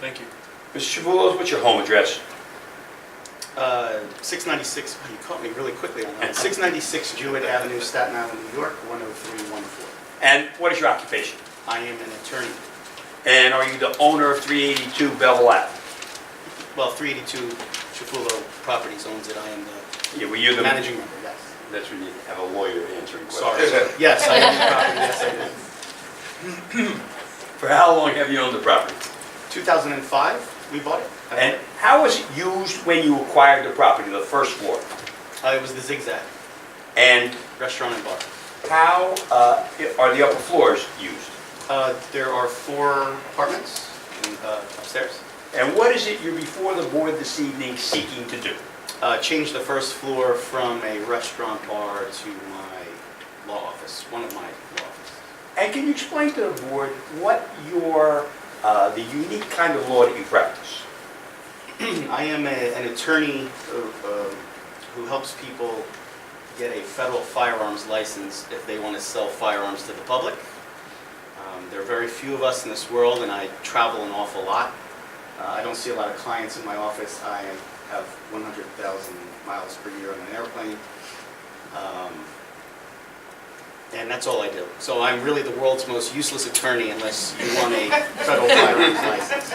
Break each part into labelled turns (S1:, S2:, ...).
S1: Thank you.
S2: Mr. Shavuos, what's your home address?
S3: Uh, 696, you caught me really quickly on that. 696 Jewett Avenue, Staten Island, New York, 10314.
S2: And what is your occupation?
S3: I am an attorney.
S2: And are you the owner of 382 Bevel Ave?
S3: Well, 382 Chifulo Properties owns it. I am
S2: Yeah, were you
S3: the
S2: the...
S3: managing member, yes.
S2: That's when you have a lawyer answering
S3: Sorry.
S2: questions.
S3: Yes, I own the property, yes, I do.
S2: For how long have you owned the property?
S3: 2005, we bought it.
S2: And how was it used when you acquired the property, the first floor?
S3: Uh, It was the Zigzag
S2: And
S3: Restaurant and Bar.
S2: how uh, are the upper floors used?
S3: Uh, There are four apartments in, uh, upstairs.
S2: And what is it you're before the board this evening seeking to do?
S3: Uh, Changed the first floor from a restaurant bar to my law office, one of my law offices.
S2: And can you explain to the board what your, uh, the unique kind of law that you practice?
S3: I am a- an attorney uh, uh, who helps people get a federal firearms license if they want to sell firearms to the public. Um, There are very few of us in this world, and I travel an awful lot. Uh, I don't see a lot of clients in my office. I have 100,000 miles per year on an airplane. Um, And that's all I do. So I'm really the world's most useless attorney unless you want a federal firearms license.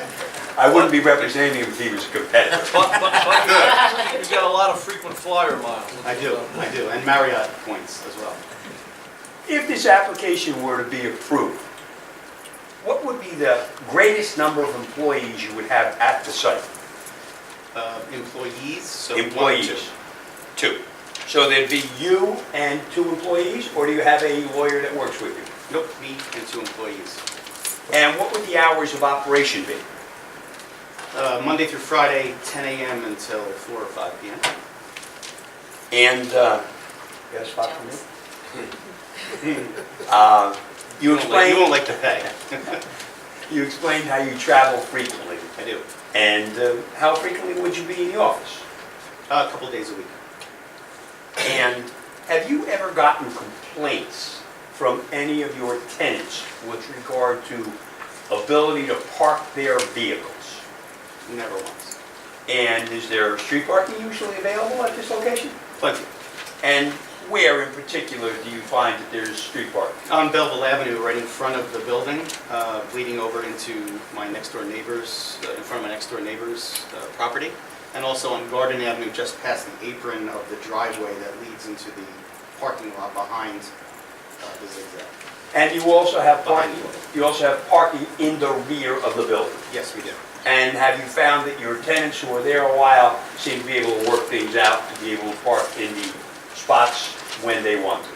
S2: I wouldn't be representing him if he was a competitor.
S1: But, but, but you got a lot of frequent flyer miles.
S3: I do, I do, and Marriott points as well.
S2: If this application were to be approved, what would be the greatest number of employees you would have at the site?
S3: Uh, Employees, so one or two.
S2: Employees? Two. So there'd be you and two employees, or do you have a lawyer that works with you?
S3: Nope, me and two employees.
S2: And what would the hours of operation be?
S3: Uh, Monday through Friday, 10 a.m. until 4 or 5 p.m.
S2: And, uh, you got a spot for me? Uh, You
S3: won't like- You
S2: explained,
S3: won't like the pay.
S2: you explained how you travel frequently,
S3: I do,
S2: and uh, how frequently would you be in the office?
S3: Uh, a couple days a week.
S2: And have you ever gotten complaints from any of your tenants with regard to ability to park their vehicles?
S3: Never once.
S2: And is there street parking usually available at this location?
S3: Plenty.
S2: And where in particular do you find that there's street parking?
S3: On Belleville Avenue, right in front of the building, uh, bleeding over into my next-door neighbor's, uh, in front of my next-door neighbor's uh, property, and also on Garden Avenue, just past the apron of the driveway that leads into the parking lot behind uh, the zigzag.
S2: And you also have parking,
S3: Behind
S2: you also have parking in the rear of the building?
S3: Yes, we do.
S2: And have you found that your tenants who are there a while seem to be able to work things out, to be able to park in the spots when they want to?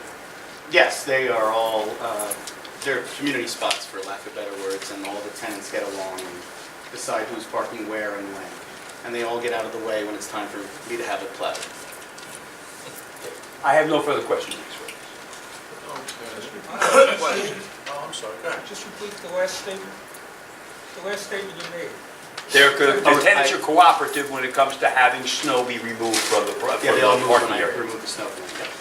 S3: Yes, they are all, uh, they're community spots, for lack of better words, and all the tenants get along and decide who's parking where and when. And they all get out of the way when it's time for me to have a play.
S2: I have no further questions, Mr. Witness.
S4: Oh, I'm sorry, go ahead.
S5: Just repeat the last statement, the last statement you made.
S2: They're, co- the
S3: Oh,
S2: tenants
S3: I-
S2: are cooperative when it comes to having snow be removed from the, pro-
S3: Yeah,
S2: from
S3: they all
S2: the
S3: move
S2: parking
S3: when I
S2: area.
S3: remove the snow. from them, yeah.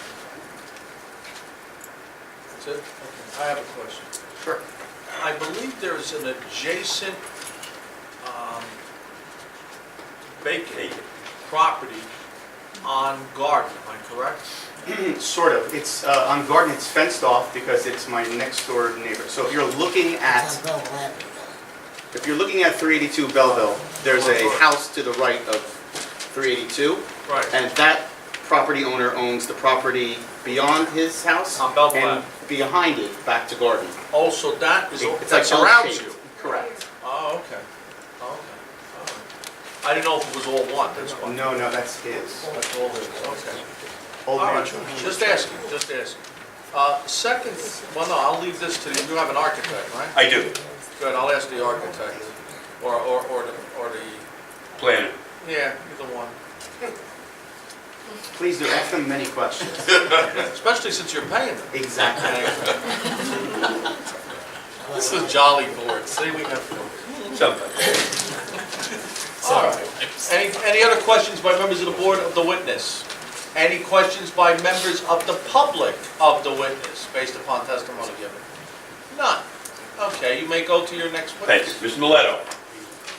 S4: That's it? Okay, I have a question.
S3: Sure.
S4: I believe there is an adjacent um, vacant property on Garden, am I correct?
S3: Sort of. It's, uh, on Garden, it's fenced off because it's my next door neighbor. So if you're looking at, if you're looking at 382 Belleville, there's a house to the right of 382.
S4: Right.
S3: And that property owner owns the property beyond his house.
S4: On Belleville
S3: And behind it, back to garden.
S4: Also, that is,
S3: It's
S4: that
S3: like
S4: surrounds
S3: L-shaped.
S4: you?
S3: Correct.
S4: Oh, okay, oh, okay. All right. I didn't know if it was all one, that's
S3: No,
S4: why.
S3: no, that's his.
S4: That's all it is, okay.
S3: Old
S4: All
S3: man.
S4: right, just asking, just asking. Uh, Second, well, no, I'll leave this to you, you have an architect, right?
S2: I do,
S4: Good, I'll ask the architect, or, or, or the, or the,
S2: planning.
S4: yeah, either one.
S3: Please do, ask them many questions.
S4: Especially since you're paying them.
S3: Exactly.
S4: This is jolly board, see, we have.
S2: Something.
S4: All right. Any, any other questions by members of the board of the witness? Any questions by members of the public of the witness, based upon testimony given? None. Okay, you may go to your next
S2: Thank
S4: witness.
S2: you. Mr. Mileto?